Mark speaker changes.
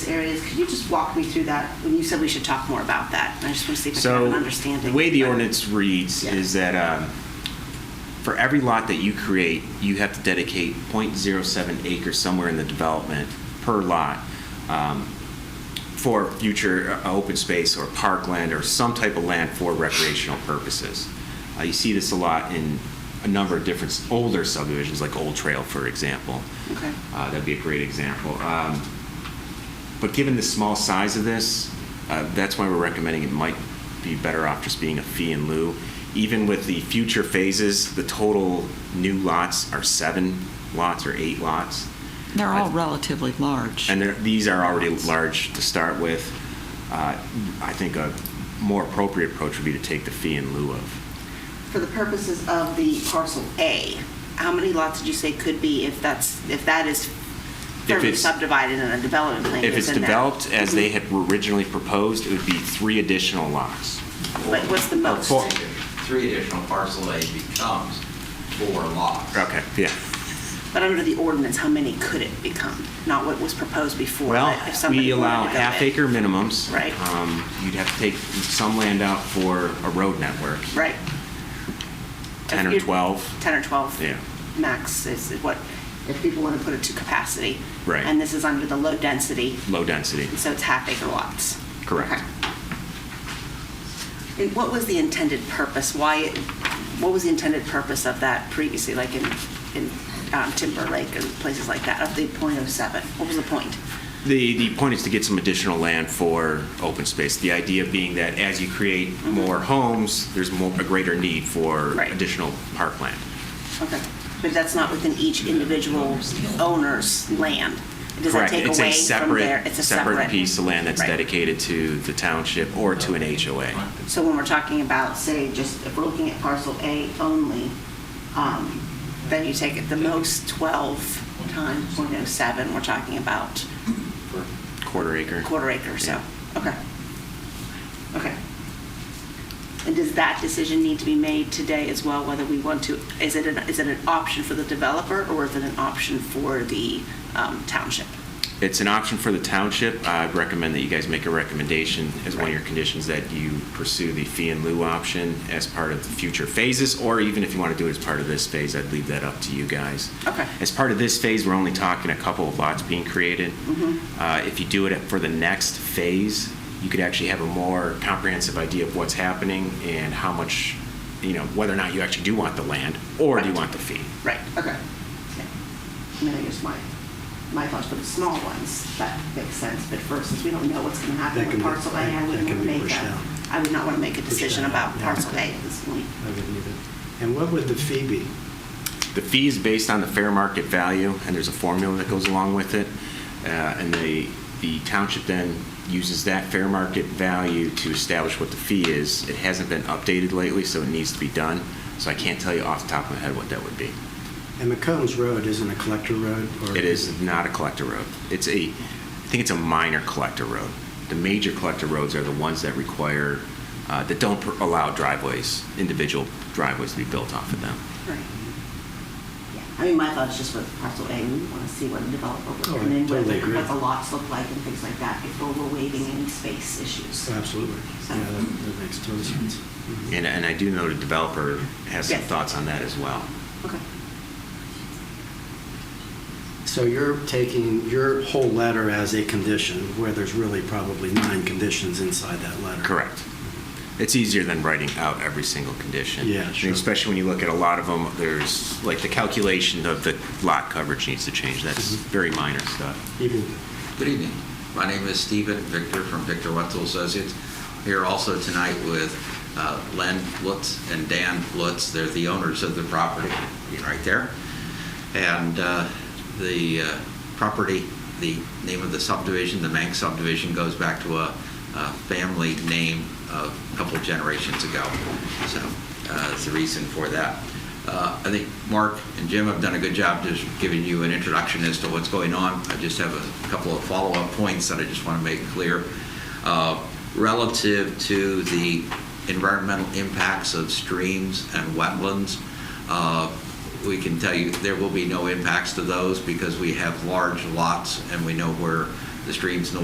Speaker 1: areas. Could you just walk me through that? When you said we should talk more about that, and I just want to see if I have
Speaker 2: So,
Speaker 1: an understanding.
Speaker 2: the way the ordinance reads
Speaker 1: Yeah.
Speaker 2: is that um, for every lot that you create, you have to dedicate .07 acres somewhere in the development per lot um, for future uh, open space or parkland or some type of land for recreational purposes. Uh, You see this a lot in a number of different s- older subdivisions, like Old Trail, for example.
Speaker 1: Okay.
Speaker 2: Uh, That'd be a great example. Um, But given the small size of this, uh, that's why we're recommending it might be better off just being a fee in lieu. Even with the future phases, the total new lots are seven lots or eight lots.
Speaker 3: They're all relatively large.
Speaker 2: And they're- these are already large to start with. Uh, I think a more appropriate approach would be to take the fee in lieu of.
Speaker 1: For the purposes of the parcel A, how many lots did you say could be if that's, if that is fairly
Speaker 2: it's-
Speaker 1: subdivided and a development plan
Speaker 2: If
Speaker 1: is
Speaker 2: it's
Speaker 1: in that?
Speaker 2: developed
Speaker 1: Mm-hmm.
Speaker 2: as they had originally proposed, it would be three additional lots.
Speaker 1: Mm-hmm. But what's the
Speaker 2: Or
Speaker 1: most?
Speaker 2: Oh, four-
Speaker 4: Three additional parcel A becomes four lots.
Speaker 2: Okay, yeah.
Speaker 1: But under the ordinance, how many could it become? Not what was proposed before.
Speaker 2: Well,
Speaker 1: but if somebody
Speaker 2: we allow
Speaker 1: wanted to go
Speaker 2: half
Speaker 1: in.
Speaker 2: acre minimums.
Speaker 1: Right.
Speaker 2: Um, You'd have to take some land out for a road network.
Speaker 1: Right.
Speaker 2: 10 or
Speaker 1: If you-
Speaker 2: 12.
Speaker 1: 10 or 12.
Speaker 2: Yeah.
Speaker 1: Max is what, if people want to put it to capacity.
Speaker 2: Right.
Speaker 1: And this is under the low density,
Speaker 2: Low density.
Speaker 1: and so it's half acre lots.
Speaker 2: Correct.
Speaker 1: Okay. And what was the intended purpose? Why, it- what was the intended purpose of that previously, like in, in um, Timber Lake and places like that, of the .07? What was the point?
Speaker 2: The, the point is to get some additional land for open space. The idea being that as you create more homes, there's more, a greater need for
Speaker 1: Mm-hmm. Right.
Speaker 2: additional parkland.
Speaker 1: Okay, but that's not within each individual owner's land? Does that
Speaker 2: Correct.
Speaker 1: take
Speaker 2: It's
Speaker 1: away
Speaker 2: a
Speaker 1: from there?
Speaker 2: separate, separate piece of land that's
Speaker 1: Right.
Speaker 2: dedicated to the township or to an HOA.
Speaker 1: So when we're talking about, say, just if we're looking at parcel A only, um, then you take it the most 12 times .07, we're talking about
Speaker 2: Quarter acre.
Speaker 1: quarter acre, so,
Speaker 2: Yeah.
Speaker 1: okay. Okay. And does that decision need to be made today as well, whether we want to, is it an, is it an option for the developer or is it an option for the um, township?
Speaker 2: It's an option for the township. I'd recommend that you guys make a recommendation as one of your conditions that you pursue the fee and lieu option as part of the future phases, or even if you want to do it as part of this phase, I'd leave that up to you guys.
Speaker 1: Okay.
Speaker 2: As part of this phase, we're only talking a couple of lots being created.
Speaker 1: Mm-hmm.
Speaker 2: Uh, If you do it for the next phase, you could actually have a more comprehensive idea of what's happening and how much, you know, whether or not you actually do want the land, or do you
Speaker 1: Right.
Speaker 2: want the fee?
Speaker 1: Right, okay. Yeah. I mean, I guess my, my thoughts for the small ones, that makes sense, but first, since we don't know what's gonna happen
Speaker 5: That
Speaker 1: with
Speaker 5: can be-
Speaker 1: parcel A,
Speaker 5: that-
Speaker 1: I
Speaker 5: that
Speaker 1: wouldn't
Speaker 5: can
Speaker 1: wanna
Speaker 5: be
Speaker 1: make
Speaker 5: pushed
Speaker 1: a,
Speaker 5: out.
Speaker 1: I would not wanna make a
Speaker 5: Pushed
Speaker 1: decision
Speaker 5: out,
Speaker 1: about
Speaker 5: yeah.
Speaker 1: parcel A at this point.
Speaker 5: I wouldn't either. And what would the fee be?
Speaker 2: The fee is based on the fair market value, and there's a formula that goes along with it. Uh, And the, the township then uses that fair market value to establish what the fee is. It hasn't been updated lately, so it needs to be done. So I can't tell you off the top of my head what that would be.
Speaker 5: And McCombs Road isn't a collector road? or-
Speaker 2: It is not a collector road. It's a, I think it's a minor collector road. The major collector roads are the ones that require, uh, that don't per- allow driveways, individual driveways to be built off of them.
Speaker 1: Right. Yeah. I mean, my thoughts just with parcel A, we wanna see what a developer would
Speaker 5: Oh,
Speaker 1: come in with,
Speaker 5: totally
Speaker 1: like,
Speaker 5: agree.
Speaker 1: what the lots look like and things like that before we're waiving any space issues.
Speaker 5: Absolutely. Yeah, that that makes total sense. Mhm.
Speaker 2: And, uh, and I do know the developer has some
Speaker 1: Yes.
Speaker 2: thoughts on that as well.
Speaker 1: Okay.
Speaker 5: So you're taking your whole letter as a condition, where there's really probably nine conditions inside that letter?
Speaker 2: Correct. It's easier than writing out every single condition.
Speaker 5: Yeah,
Speaker 2: And
Speaker 5: sure.
Speaker 2: Especially when you look at a lot of them, there's, like, the calculation of the lot coverage needs to change. That's
Speaker 5: Mhm.
Speaker 2: very minor stuff.
Speaker 5: Even,
Speaker 4: Good evening. My name is Stephen Victor from Victor Wetzel Associates. Here also tonight with uh, Len Lutz and Dan Lutz. They're the owners of the property right there. And uh, the uh, property, the name of the subdivision, the Manx subdivision, goes back to a a family name a couple generations ago. So uh, that's the reason for that. Uh, I think Mark and Jim have done a good job just giving you an introduction as to what's going on. I just have a couple of follow-up points that I just want to make clear. Uh, Relative to the environmental impacts of streams and wetlands, uh, we can tell you there will be no impacts to those because we have large lots and we know where the streams and the